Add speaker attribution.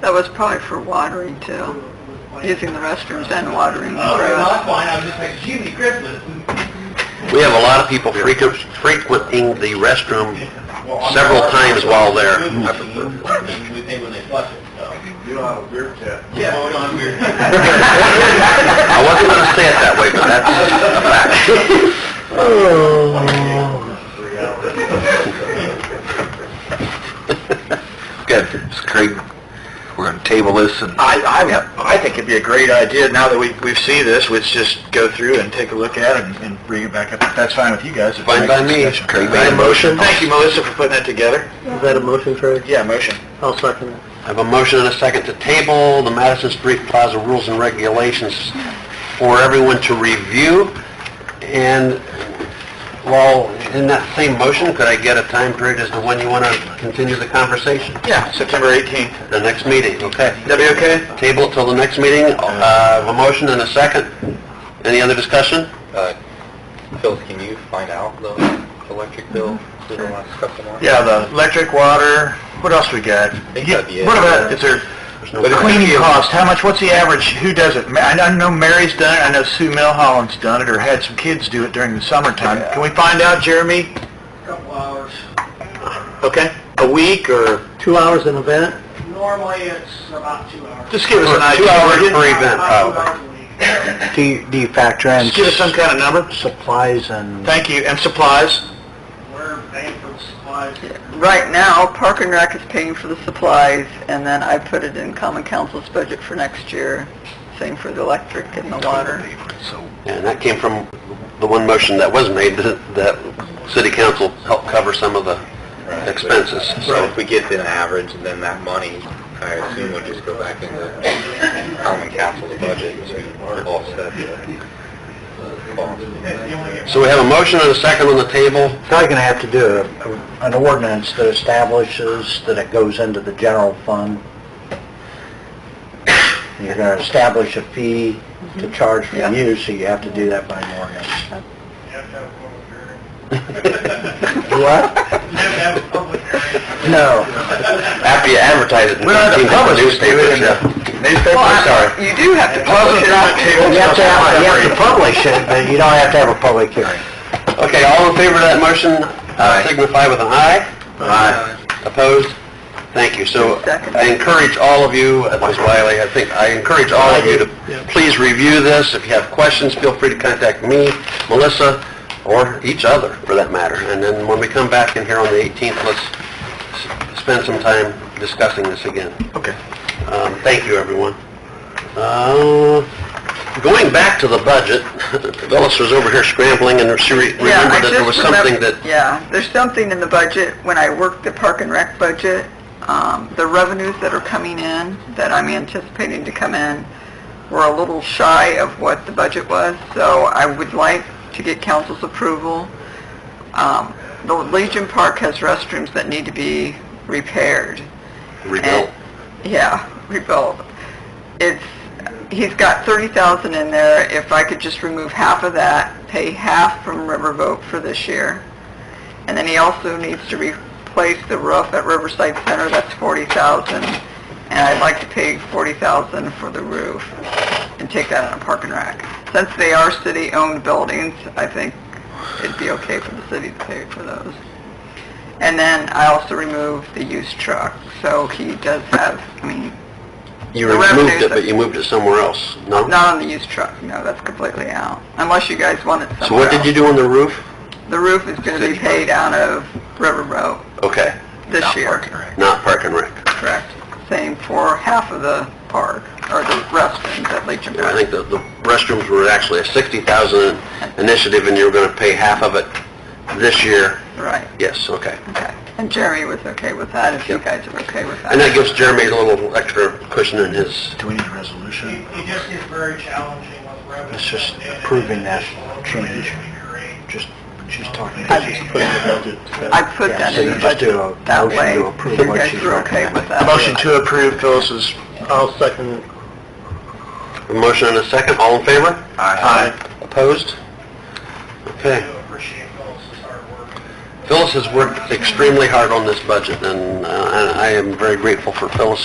Speaker 1: That was probably for watering too, using the restrooms and watering. the
Speaker 2: Oh, no,
Speaker 1: grass.
Speaker 2: that's fine, I was just like, gee, the Christmas.
Speaker 3: We have a lot of people frequent- frequenting the restroom
Speaker 2: Well, I'm
Speaker 3: several
Speaker 2: sorry.
Speaker 3: times while there.
Speaker 2: Good machine, and We pay when they flush it, so. You don't have a beer tap. Yeah, we don't have a beer
Speaker 3: I wasn't going to say it that way, but that's a fact. Good. Craig, we're going to table this and...
Speaker 2: I, I, I think it'd be a great idea, now that we, we've seen this, let's just go through and take a look at it and- and bring it back up, if that's fine with you guys. if
Speaker 3: Fine
Speaker 2: that's
Speaker 3: by me.
Speaker 2: discussion.
Speaker 3: Craig made a motion.
Speaker 2: Thank you, Melissa, for putting that together.
Speaker 4: Is that a motion, Craig?
Speaker 2: Yeah, motion.
Speaker 4: I'll second it.
Speaker 3: I have a motion and a second to table the Madison Street Plaza rules and regulations for everyone to review. And while in that same motion, could I get a time period as to when you want to continue the conversation?
Speaker 2: Yeah, September 18th.
Speaker 3: The next meeting, okay?
Speaker 2: That be okay?
Speaker 3: Table till the next meeting, uh, I have a motion and a second. Any other discussion?
Speaker 5: Phil, can you find out the electric bill for the last couple months?
Speaker 2: Yeah, the electric, water, what else we got?
Speaker 5: think that'd be it.
Speaker 2: What about, is there,
Speaker 3: no
Speaker 2: the cleaning cost, how much, what's the average, who does it? Ma- I know- I know Mary's done it, I know Sue Milholland's done it, or had some kids do it during the summertime. Can we find out, Jeremy?
Speaker 6: couple hours.
Speaker 2: Okay, a week, or
Speaker 4: Two hours an event?
Speaker 6: Normally, it's about two hours.
Speaker 2: just give us an
Speaker 3: Two
Speaker 2: idea.
Speaker 3: hours
Speaker 2: would you?
Speaker 3: per event.
Speaker 6: About two hours a week.
Speaker 4: Do you, do you factor in
Speaker 2: Just give us some kind of number.
Speaker 4: supplies and...
Speaker 2: Thank you, and supplies?
Speaker 6: We're paying for the supplies.
Speaker 1: Right now, Park and Rec is paying for the supplies, and then I put it in Common Council's budget for next year, same for the electric and the water.
Speaker 3: And that came from the one motion that was made, that that city council helped cover some of the expenses.
Speaker 5: So
Speaker 3: So
Speaker 5: if we get an average, then that money, I assume would just go back into common council's budget to offset the cost.
Speaker 3: So we have a motion and a second on the table.
Speaker 4: Probably gonna have to do a- an ordinance that establishes that it goes into the general fund. You're gonna establish a fee to charge for
Speaker 1: Yeah.
Speaker 4: use, so you have to do that by an ordinance.
Speaker 6: You have to have a public hearing.
Speaker 4: What?
Speaker 6: You have to have a public hearing.
Speaker 4: No.
Speaker 3: After you advertise it. in
Speaker 2: We don't have to
Speaker 3: 15 different
Speaker 2: publish it, do we?
Speaker 3: newspapers, yeah.
Speaker 2: Newspaper,
Speaker 1: Well, You do have to publish it out.
Speaker 4: You have to have, you have to publish it, but you don't have to have a public hearing.
Speaker 3: Okay, all in favor of that motion, uh, signify with an aye.
Speaker 2: Aye.
Speaker 3: Opposed? Thank you. So
Speaker 1: Second.
Speaker 3: I encourage all of you, uh, Ms. Wiley, I think, I encourage all of you to please review this. If you have questions, feel free to contact me, Melissa, or each other, for that matter. And then when we come back in here on the 18th, let's s- spend some time discussing this again.
Speaker 2: Okay.
Speaker 3: Um, Thank you, everyone. Uh, Going back to the budget, Phyllis was over here scrambling, and she re-
Speaker 1: Yeah, I
Speaker 3: remembered that
Speaker 1: just
Speaker 3: there was
Speaker 1: remem-
Speaker 3: something that
Speaker 1: Yeah, there's something in the budget, when I worked the Park and Rec budget, um, the revenues that are coming in, that I'm anticipating to come in, were a little shy of what the budget was, so I would like to get council's approval. Um, The Legion Park has restrooms that need to be repaired.
Speaker 3: rebuilt.
Speaker 1: And- Yeah, rebuilt. It's, he's got thirty thousand in there, if I could just remove half of that, pay half from Riverboat for this year. And then he also needs to replace the roof at Riverside Center, that's forty thousand, and I'd like to pay forty thousand for the roof and take that on a park and rack. Since they are city-owned buildings, I think it'd be okay for the city to pay for those. And then I also removed the used truck, so he does have, I mean,
Speaker 3: You
Speaker 1: The
Speaker 3: removed
Speaker 1: revenues
Speaker 3: it, but
Speaker 1: that-
Speaker 3: you moved it somewhere else, no?
Speaker 1: not on the used truck, no, that's completely out, unless you guys want it somewhere
Speaker 3: So what did you
Speaker 1: else.
Speaker 3: do on the roof?
Speaker 1: The roof is gonna be paid out of Riverboat
Speaker 3: Okay,
Speaker 1: this year.
Speaker 3: not Park and Rec.
Speaker 1: Correct. Same for half of the park, or the restrooms at Legion
Speaker 3: I
Speaker 1: Park.
Speaker 3: think that the restrooms were actually a 60,000 initiative, and you were going to pay half of it this year.
Speaker 1: Right,
Speaker 3: Yes, okay.
Speaker 1: okay. And Jeremy was okay with that, if you
Speaker 3: Yep.
Speaker 1: guys are okay with
Speaker 3: And that
Speaker 1: that.
Speaker 3: gives Jeremy a little extra cushion in his...
Speaker 4: Do we need a resolution?
Speaker 6: It just gets very challenging with revenue.
Speaker 4: It's just
Speaker 6: coming in and
Speaker 4: approving that
Speaker 6: additional
Speaker 4: change.
Speaker 6: appropriation rate.
Speaker 4: Just, she's talking.
Speaker 1: I- Just put I put
Speaker 4: Yeah,
Speaker 1: that
Speaker 4: so
Speaker 1: in
Speaker 4: you
Speaker 1: the
Speaker 4: just do
Speaker 1: budget
Speaker 4: a
Speaker 1: that
Speaker 4: motion
Speaker 1: way,
Speaker 4: to
Speaker 1: so
Speaker 4: approve
Speaker 1: you
Speaker 4: what
Speaker 1: guys
Speaker 4: she's
Speaker 1: are okay with
Speaker 4: recommending.
Speaker 1: that.
Speaker 2: Motion to approve Phyllis's.
Speaker 4: I'll second.
Speaker 3: A motion and a second, all in favor?
Speaker 2: Aye.
Speaker 3: Opposed?
Speaker 6: I
Speaker 3: Okay.
Speaker 6: do appreciate Phyllis's hard work.
Speaker 3: Phyllis has worked extremely hard on this budget, and uh, I I am very grateful for Phyllis